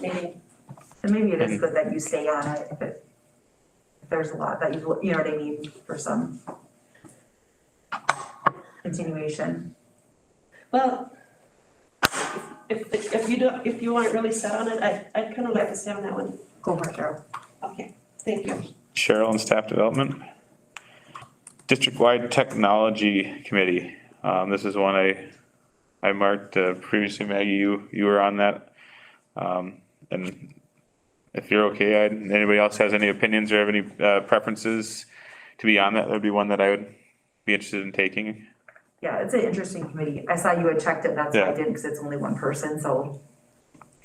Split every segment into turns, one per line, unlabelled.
maybe,
And maybe it is good that you stay on it if it, if there's a lot that you, you know what I mean, for some continuation.
well, if, if- if you don't, if you aren't really set on it, I, I'd kind of like to stay on that one.
Go for it, Cheryl.
Okay, thank you.
Cheryl and Staff Development. District-wide Technology Committee, um, this is one I, I marked, uh, previously Maggie, you, you were on that. Um, and if you're okay, I'd, anybody else has any opinions or have any, uh, preferences to be on that, that'd be one that I would be interested in taking.
Yeah, it's an interesting committee. I saw you had checked it, that's why I
Yeah.
didn't, because it's only one person, so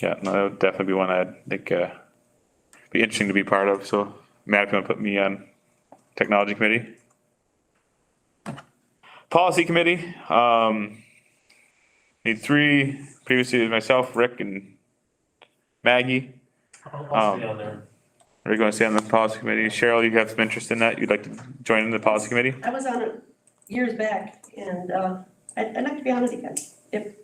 Yeah, no, that would definitely be one I'd think, uh, be interesting to be part of, so Matt, if you wanna put me on Technology Committee? Policy Committee, um, need three, previously it was myself, Rick and Maggie.
I'll
Um,
I'll stay on there.
We're gonna stay on the Policy Committee. Cheryl, you have some interest in that? You'd like to join the Policy Committee?
I was on it years back and, uh, I'd, I'd like to be on it again, if,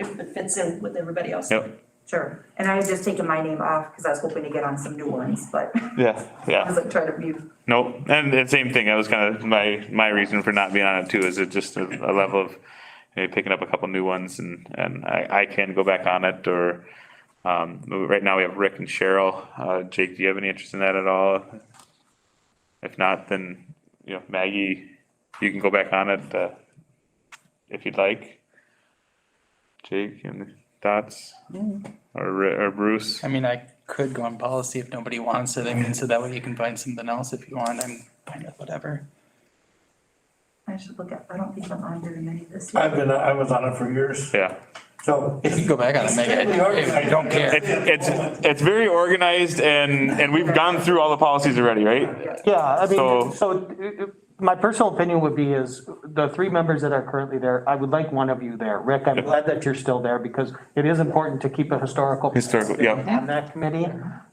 if it fits in with everybody else.
Yep.
sure. And I had just taken my name off because I was hoping to get on some new ones, but
Yeah.
I
Yeah,
was like trying to mute.
nope, and the same thing, that was kinda my, my reason for not being on it too, is it just a, a level of maybe picking up a couple new ones and, and I, I can go back on it or, um, right now we have Rick and Cheryl. Uh, Jake, do you have any interest in that at all? If not, then, you know, Maggie, you can go back on it, uh, if you'd like. Jake and thoughts or, Ri- or Bruce?
Mm. I mean, I could go on policy if nobody wants it. I mean, so that way you can find something else if you want. I'm fine with whatever.
I should look at, I don't think I'm on very many this year.
I've been, I was on it for years,
Yeah.
so.
If you go back on it, make it. I don't care.
It's, it's, it's very organized and, and we've gone through all the policies already, right?
Yeah, I
So-
mean, so uh, uh, my personal opinion would be is the three members that are currently there, I would like one of you there. Rick, I'm glad that you're still there because it is important to keep a historical.
Historical,
perspective
yeah.
On that committee.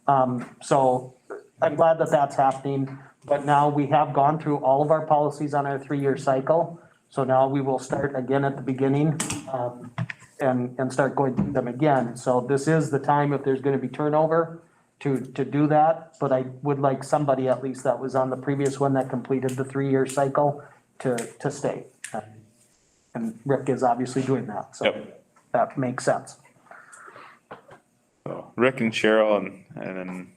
Um, so I'm glad that that's happening. But now we have gone through all of our policies on our three-year cycle. So now we will start again at the beginning, um, and, and start going through them again. So this is the time if there's gonna be turnover to, to do that. But I would like somebody at least that was on the previous one that completed the three-year cycle to, to stay. And Rick is obviously doing that, so
Yep.
that makes sense.
So Rick and Cheryl and, and then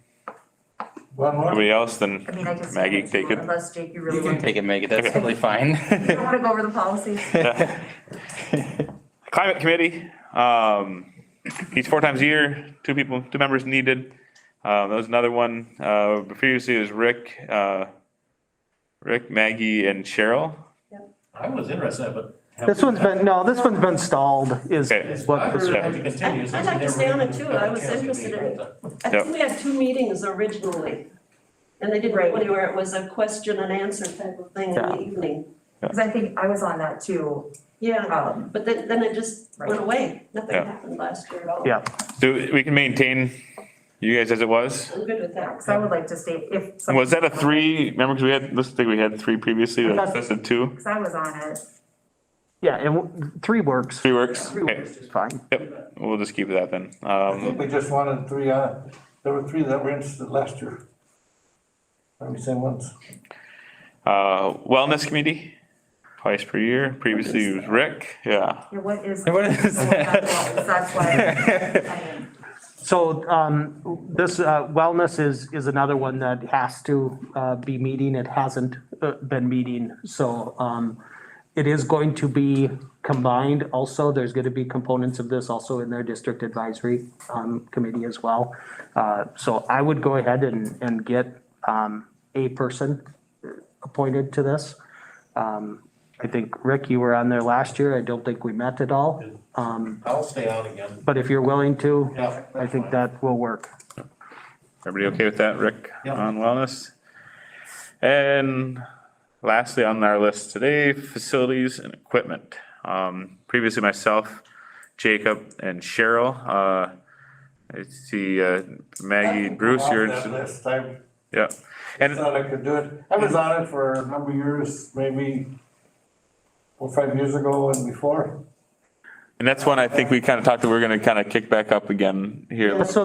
One more,
nobody else, then
I mean, I just.
Maggie, take it.
Unless Jake, you really
You can
want to.
take it, make it. That's totally fine.
You want to go over the policies?
Climate Committee, um, meets four times a year, two people, two members needed. Uh, that was another one, uh, previously it was Rick, uh, Rick, Maggie and Cheryl.
I was interested, but.
This one's been, no, this one's been stalled is,
Okay.
is
I
what this
really had to continue, so
I'd like to
we
stay on
never
it too.
got a
I was
chance to
interested
meet
in it.
with
I
Yep.
think we had two meetings originally. And they didn't
Right.
go anywhere. It was a question and answer type of thing in
Yeah.
the evening.
Because I think I was on that too.
Yeah,
Um,
but then, then it just went
Right.
away. Nothing
Yeah.
happened last year at all.
Yeah.
Do, we can maintain you guys as it was?
I'm good with that.
because I would like to stay if. some-
Was that a three, remember, cause we had, this thing, we had three previously,
I thought-
that's a two,
Because I was on it.
yeah, and w- three works.
three works?
Three
Okay.
works is fine.
Yep, we'll just keep that then.
I think
Um,
we just wanted three, uh, there were three that were interested last year. Let me say once.
uh, wellness committee, twice per year, previously it was Rick, yeah.
Yeah, What is?
What is that?
That's why. I mean,
So, um, this, uh, wellness is, is another one that has to, uh, be meeting. It hasn't, uh, been meeting. So, um, it is going to be combined also. There's gonna be components of this also in their district advisory, um, committee as well. Uh, so I would go ahead and, and get, um, a person appointed to this. Um, I think, Rick, you were on there last year. I don't think we met at all. Um,
I'll stay on again.
but if you're willing to,
Yeah.
I think that will work.
Everybody okay with that, Rick,
Yeah.
on wellness? And lastly, on our list today, facilities and equipment. Um, previously myself, Jacob and Cheryl, uh, I see, uh, Maggie, Bruce, you're,
Off that list. I
yeah. And
thought I could do it. I was on it for a number of years, maybe four, five years ago and before.
And that's one I think we kind of talked that we're going to kind of kick back up again here.
So